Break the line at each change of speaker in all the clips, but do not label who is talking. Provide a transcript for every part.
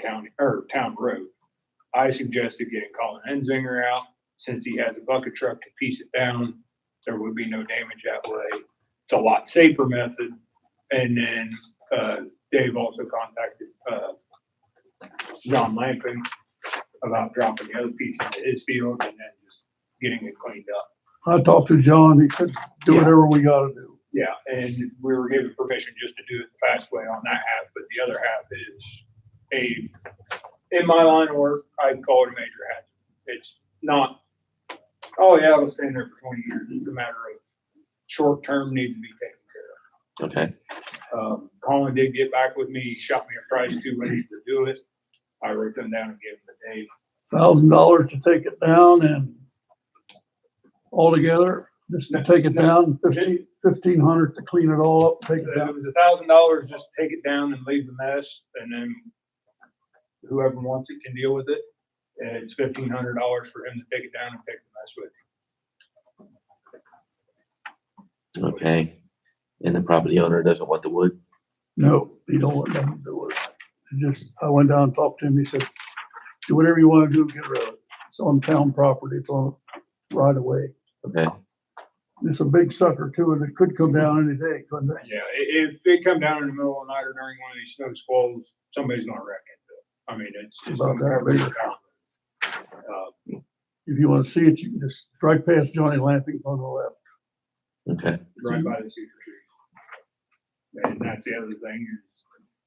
county, or town road. I suggested getting Colin Enzinger out, since he has a bucket truck to piece it down, there would be no damage that way. It's a lot safer method. And then, uh, Dave also contacted, uh, John Lampin about dropping the other piece into his field and then just getting it cleaned up.
I talked to John, he said, do whatever we gotta do.
Yeah, and we were given permission just to do it the fast way on that half, but the other half is a, in my line of work, I'd call it a major hazard. It's not, oh yeah, I was staying there for twenty years. It's a matter of short term needs to be taken care
Okay,
of. Um, Colin did get back with me, shot me a price too, ready to do it. I wrote them down and gave them the date.
Thousand dollars to take it down and altogether, just to take it down, fifteen, fifteen hundred to clean it all up, take it
If it
down.
was a thousand dollars, just take it down and leave the mess, and then whoever wants it can deal with it. And it's fifteen hundred dollars for him to take it down and take the mess with.
okay. And the property owner doesn't want the wood?
No, you don't want them to do it. And Just, I went down and talked to him, he said, do whatever you wanna do, get rid of it. It's on town property, it's on right away.
Okay,
It's a big sucker too, and it could come down any day, couldn't it?
Yeah, i- if they come down in the middle of the night or during one of these snow squalls, somebody's gonna wreck it. I mean, it's just
About
gonna
that
cover
big.
your town. Uh,
If you wanna see it, you can just strike past Johnny Lamping on the left.
okay,
right by the cedar tree. And that's the other thing, is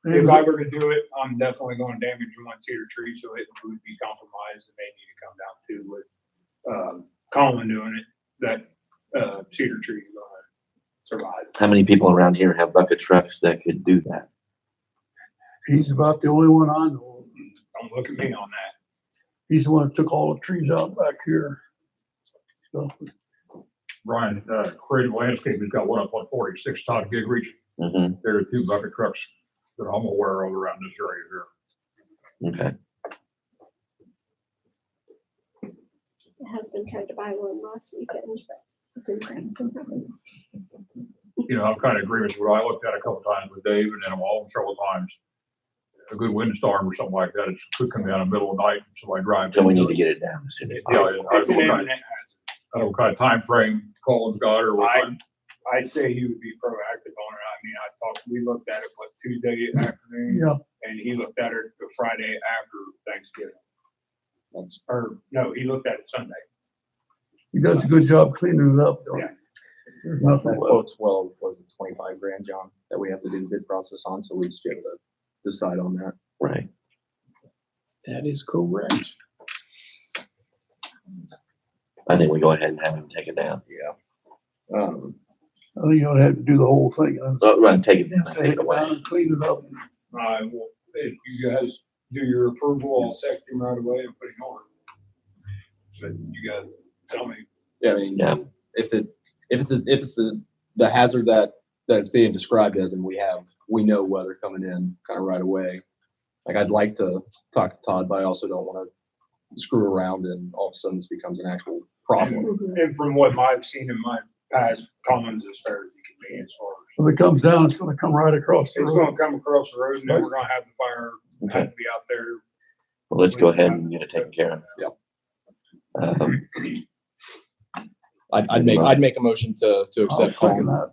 If
And
I were to do it, I'm definitely going to damage one cedar tree, so it would be compromised and they need to come down too with, um, Colin doing it, that, uh, cedar tree is gonna survive.
how many people around here have bucket trucks that could do that?
He's about the only one I know. of.
Don't look at me on that.
He's the one that took all the trees out back here. So,
Brian, uh, Creative Landscape, has got one up on forty-six, Todd Gigrich.
Mm-hmm,
There are two bucket trucks that I'm aware of around this area here.
okay,
My husband tried to buy one last weekend, but it didn't happen.
You know, I'm kind of agreeing with what I looked at a couple times with Dave and then I'm all several times. A good windstorm or something like that, it's could come down in the middle of the night, somebody drives.
so we need
into
to
it.
get it down as soon as
Yeah, I
possible.
don't know
It's an
what kind-
imminent hazard.
I don't know what kind of timeframe Colin's got or what.
I-
kind-
I'd say he would be proactive on it. I mean, I talked, we looked at it, what, Tuesday afternoon?
yeah,
And he looked at it the Friday after Thanksgiving,
That's,
or no, he looked at it Sunday.
he does a good job cleaning it up. though.
Yeah.
There's
that
nothing left.
quote's well, was it twenty-five grand, John, that we have to do the bid process on, so we'll just be able to decide on that.
Right,
That is correct.
I think we go ahead and have him take it down.
Yeah. Um,
I think you ought to have to do the whole thing. and
Oh, Right, take it down, and
Take
take it
it
away.
down and clean it up.
I will, if you guys do your approval, I'll text him right away and put him on. But you guys tell me,
yeah, I mean,
Yeah.
if it, if it's, a- if it's the, the hazard that, that it's being described as, and we have, we know weather coming in kind of right away. Like, I'd like to talk to Todd, but I also don't want to screw around and all of a sudden this becomes an actual problem.
and from what I've seen in my past, Collins is fair as you can be as far as.
If it comes down, it's gonna come right across the
It's
road.
gonna come across the road and then we're gonna have the fire, have to be out there.
Well, let's go ahead and get it taken care of.
Yep.
Um,
I'd, I'd make, I'd make a motion to, to
I'll
accept
second
Colin.
that.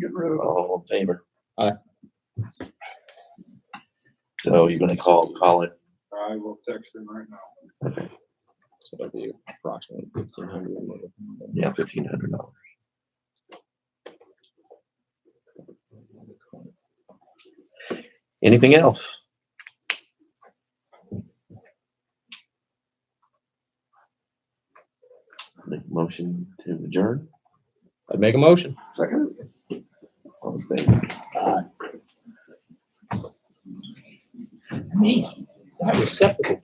Get rid of it.
all in favor?
Aye.
So you're gonna call Colin,
I will text him right now.
okay,
So that'd be approximately fifteen hundred.
yeah, fifteen hundred dollars. Anything else? Make a motion to adjourn?
I'd make a motion.
Second. All in favor?
Man, that receptacle